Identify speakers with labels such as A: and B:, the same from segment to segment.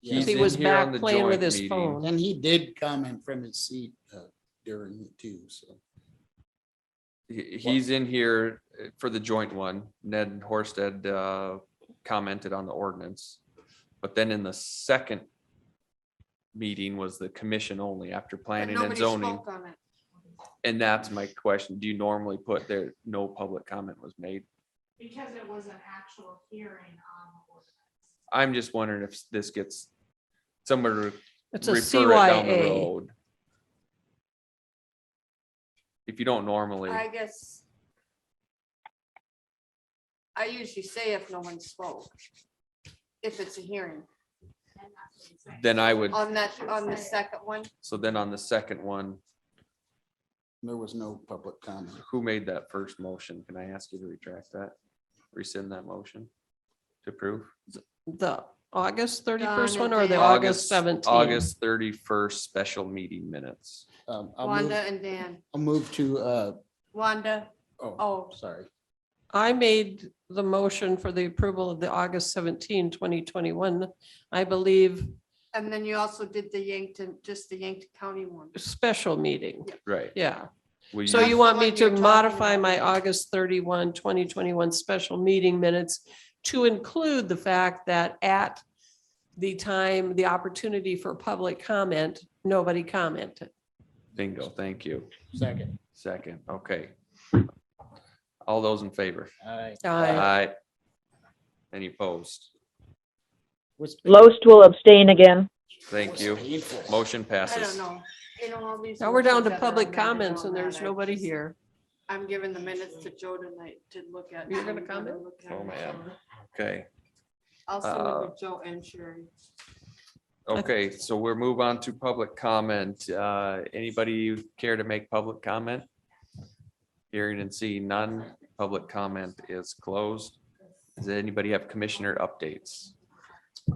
A: He's
B: He
A: in
B: was
A: here on
B: back
A: the
B: playing with
A: joint
B: his
A: meeting.
B: phone.
C: And he did comment from his seat uh, during it too, so.
A: He- He's in here uh, for the joint one. Ned Horsted uh, commented on the ordinance. But then in the second meeting was the commission only after
D: But
A: planning and
D: nobody
A: zoning.
D: spoke on it.
A: And that's my question. Do you normally put there, no public comment was made?
E: Because it was an actual hearing um, on the ordinance.
A: I'm just wondering if this gets somewhere to
B: It's a
A: refer it down the
B: CYA.
A: road. If you don't normally,
D: I guess. I usually say if no one spoke. If it's a hearing
E: And that's what he's saying.
A: then I would,
D: on that, on the second one,
A: so then on the second one,
C: There was no public comment.
A: who made that first motion? Can I ask you to retract that? Rescind that motion to approve?
B: The August thirty-first one
D: Done
B: or
D: it
B: the
D: there.
B: August seventeenth?
A: August thirty-first special meeting minutes.
C: Um, I'll move-
D: Wanda and Dan,
C: I'll move to, uh,
D: Wanda,
C: oh,
D: oh,
C: sorry.
B: I made the motion for the approval of the August 17, 2021. I believe,
D: and then you also did the Yankton, just the Yankton County one.
B: special meeting.
A: Right.
B: Yeah.
A: Will
B: So
D: That's
B: you want me
D: what
B: to
D: you're talking
B: modify
D: about.
B: my August 31, 2021 special meeting minutes to include the fact that at the time, the opportunity for public comment, nobody commented.
A: Bingo, thank you.
C: Second.
A: Second, okay. All those in favor?
C: Aye.
A: Uh,
B: I,
A: Any opposed?
C: What's-
F: Loest will abstain again.
A: Thank
C: what's
A: you.
C: painful?
A: Motion
D: I don't
A: passes.
D: know. You know, all these
B: now we're down
D: motions
B: to
D: that are
B: public
D: amended
B: comments
D: on
B: and
D: that,
B: there's
D: I
B: nobody
D: just-
B: here.
D: I'm giving the minutes to Joe tonight to look at.
B: You're gonna
D: I'm gonna
B: comment?
D: look at
A: Oh,
D: it.
A: man. Okay,
D: I'll
A: Uh,
D: send it to Joe and Sherry.
A: okay, so we'll move on to public comment. Uh, anybody care to make public comment? Hearing and seeing none, public comment is closed. Does anybody have commissioner updates?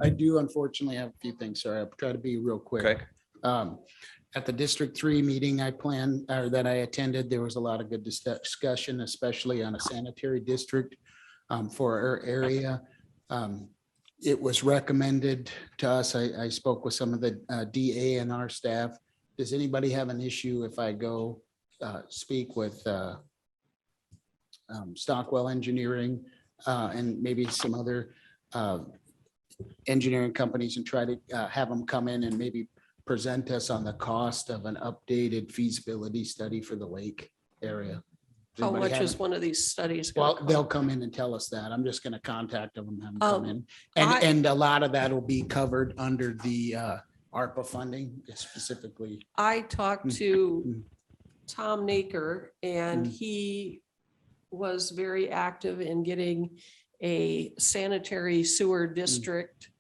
C: I do unfortunately have a few things, sorry. I'll try to be real quick.
A: Okay,
C: Um, At the District Three meeting I planned, or that I attended, there was a lot of good dis- discussion, especially on a sanitary district um, for our area. Um, It was recommended to us, I, I spoke with some of the uh, DA and our staff. Does anybody have an issue if I go uh, speak with uh, um, Stockwell Engineering uh, and maybe some other uh, engineering companies and try to uh, have them come in and maybe present us on the cost of an updated feasibility study for the lake area. Does
B: How
C: anybody
B: much
C: have-
B: Oh, is one of these studies? gonna
C: Well,
B: cost?
C: they'll come in and tell us that. I'm just gonna contact them and have them come
B: Um,
C: in. And,
B: I-
C: and a lot of that will be covered under the uh, ARPA funding specifically.
B: I talked
C: Mm,
B: to
C: mm.
B: Tom Naker and
C: Mm.
B: he was very active in getting a sanitary sewer
C: Mm.
B: district.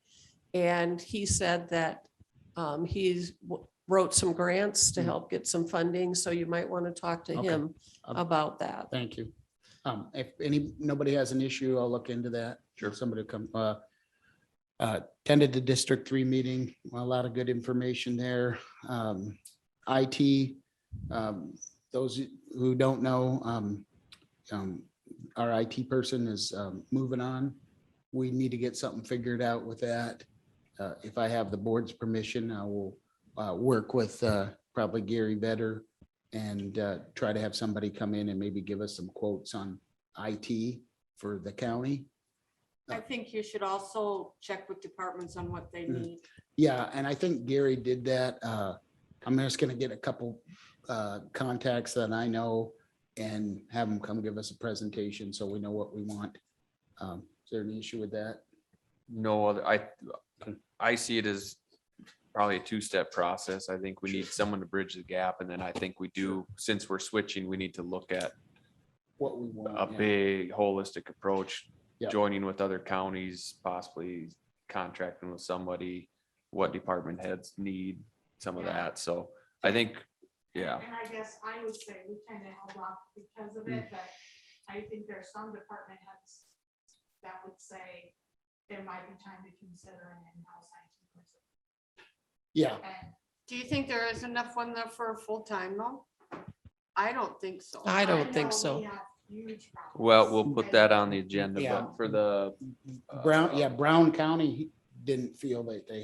B: And he said that um, he's w- wrote some grants to
C: Mm.
B: help get some funding, so you might want to talk to
C: Okay.
B: him
C: Um,
B: about that.
C: Thank you. Um, If any, nobody has an issue, I'll look into that.
A: Sure.
C: Somebody come, uh, uh, attended the District Three meeting, a lot of good information there. Um, IT, um, those who don't know, um, um, our IT person is um, moving on. We need to get something figured out with that. Uh, If I have the board's permission, I will uh, work with uh, probably Gary Vedder and uh, try to have somebody come in and maybe give us some quotes on IT for the county.
D: I think you should also check with departments on what they
C: Mm.
D: need.
C: Yeah, and I think Gary did that. Uh, I'm just gonna get a couple, uh, contacts that I know and have them come give us a presentation so we know what we want. Um, is there an issue with that?
A: no other, I, I see it as probably a two-step process. I think we need someone to bridge the gap, and then I think we do, since we're switching, we need to look at
C: What we want?
A: a
C: yeah.
A: big holistic approach,
C: Yeah.
A: joining with other counties, possibly contracting with somebody, what department heads need, some of
E: Yeah.
A: that. So I think, yeah,
E: And I guess I would say we kind of held off because of
A: Mm.
E: it, but I think there's some department heads that would say there might be time to consider an in-house IT person.
C: Yeah,
E: And
D: Do you think there is enough one there for a full-time though? I don't think so.
B: I don't
E: know
B: think so.
E: we have huge problems.
A: well, we'll put that on the agenda,
C: Yeah.
A: but for the
C: Brown, yeah, Brown County didn't feel that they